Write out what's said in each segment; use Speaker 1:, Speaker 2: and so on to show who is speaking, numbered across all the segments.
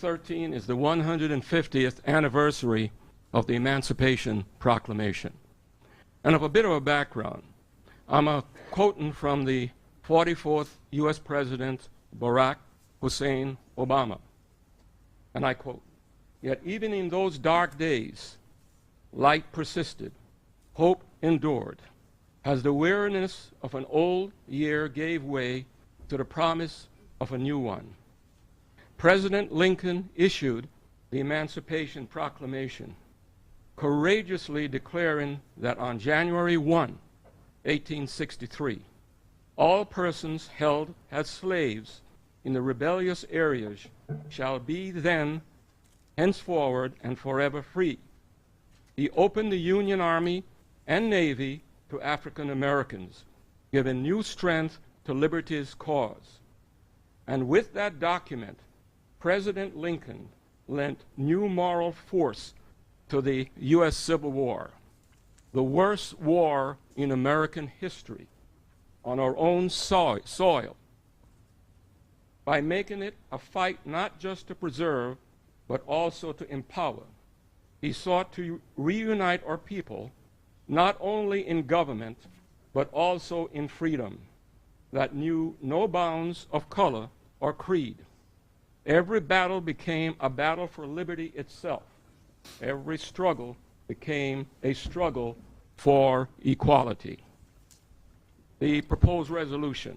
Speaker 1: 2013 is the 150th anniversary of the Emancipation Proclamation. And of a bit of a background, I'm a quoting from the 44th U.S. President Barack Hussein Obama. And I quote Yet even in those dark days, light persisted, hope endured, as the weariness of an old year gave way to the promise of a new one. President Lincoln issued the Emancipation Proclamation, courageously declaring that on January 1, 1863, all persons held as slaves in the rebellious areas shall be then, henceforward, and forever free. He opened the Union Army and Navy to African Americans, giving new strength to liberty's cause. And with that document, President Lincoln lent new moral force to the U.S. Civil War, the worst war in American history, on our own soil, soil, by making it a fight not just to preserve, but also to empower. He sought to reunite our people, not only in government, but also in freedom that knew no bounds of color or creed. Every battle became a battle for liberty itself. Every struggle became a struggle for equality. The proposed resolution.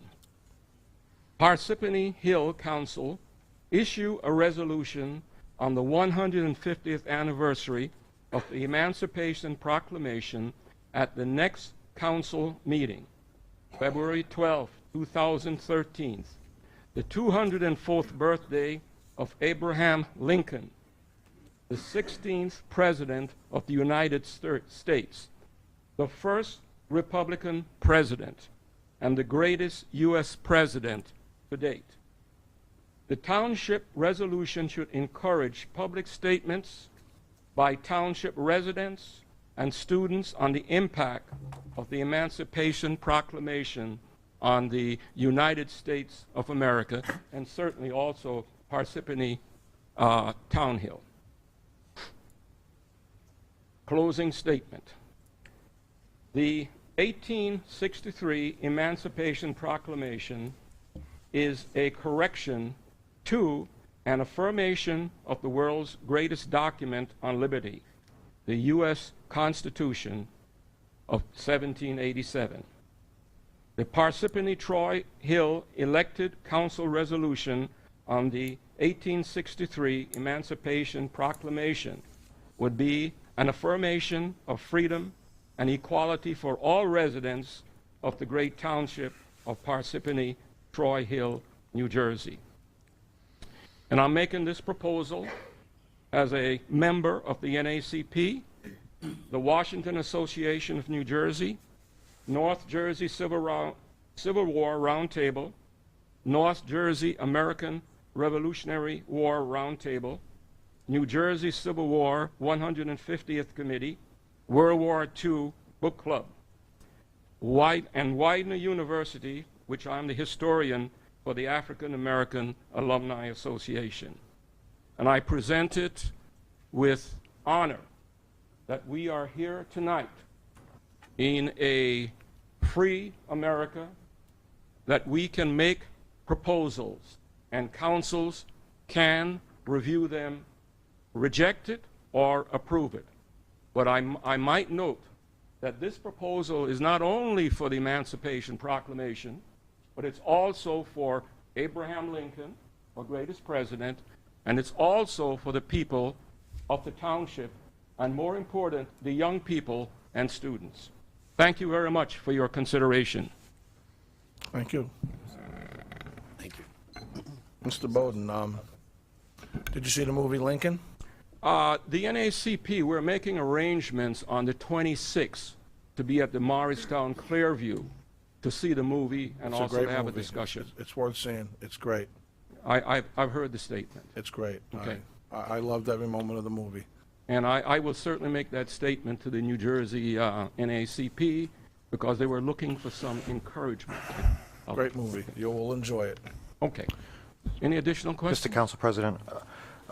Speaker 1: Parsippany Hill Council issue a resolution on the 150th anniversary of the Emancipation Proclamation at the next council meeting, February 12, 2013 the 204th birthday of Abraham Lincoln, the 16th President of the United States, the first Republican President, and the greatest U.S. President to date. The township resolution should encourage public statements by township residents and students on the impact of the Emancipation Proclamation on the United States of America and certainly also Parsippany uh, Townhill. Closing statement. The 1863 Emancipation Proclamation is a correction to an affirmation of the world's greatest document on liberty, the U.S. Constitution of 1787. The Parsippany Troy Hill elected council resolution on the 1863 Emancipation Proclamation would be an affirmation of freedom and equality for all residents of the great township of Parsippany Troy Hill, New Jersey. And I'm making this proposal as a member of the NACP, the Washington Association of New Jersey, North Jersey Civil, Round, Civil, War Roundtable, North Jersey American Revolutionary War Roundtable, New Jersey Civil War 150th Committee, World War II Book Club, Wyd and Widener University, which I'm the historian for the African American Alumni Association. And I present it with honor that we are here tonight in a free America that we can make proposals and councils can review them, reject it, or approve it. But I, I might note that this proposal is not only for the Emancipation Proclamation, but it's also for Abraham Lincoln, our greatest president, and it's also for the people of the township, and more important, the young people and students. Thank you very much for your consideration.
Speaker 2: Thank you.
Speaker 3: Thank you.
Speaker 2: Mr. Bowden, um, did you see the movie Lincoln?
Speaker 1: Uh, the NACP, we're making arrangements on the 26th to be at the Morristown Clearview to see the movie and
Speaker 2: It's a
Speaker 1: also
Speaker 2: great
Speaker 1: to have
Speaker 2: movie.
Speaker 1: a discussion.
Speaker 2: It's- It's worth seeing. It's great.
Speaker 1: I, I've, I've heard the statement,
Speaker 2: It's great.
Speaker 1: Okay.
Speaker 2: I, I I loved every moment of the movie.
Speaker 1: and I, I will certainly make that statement to the New Jersey uh, NACP because they were looking for some encouragement. of-
Speaker 2: Great movie. You will enjoy it.
Speaker 1: Okay. Any additional
Speaker 4: Mr.
Speaker 1: questions?
Speaker 4: Council President, uh,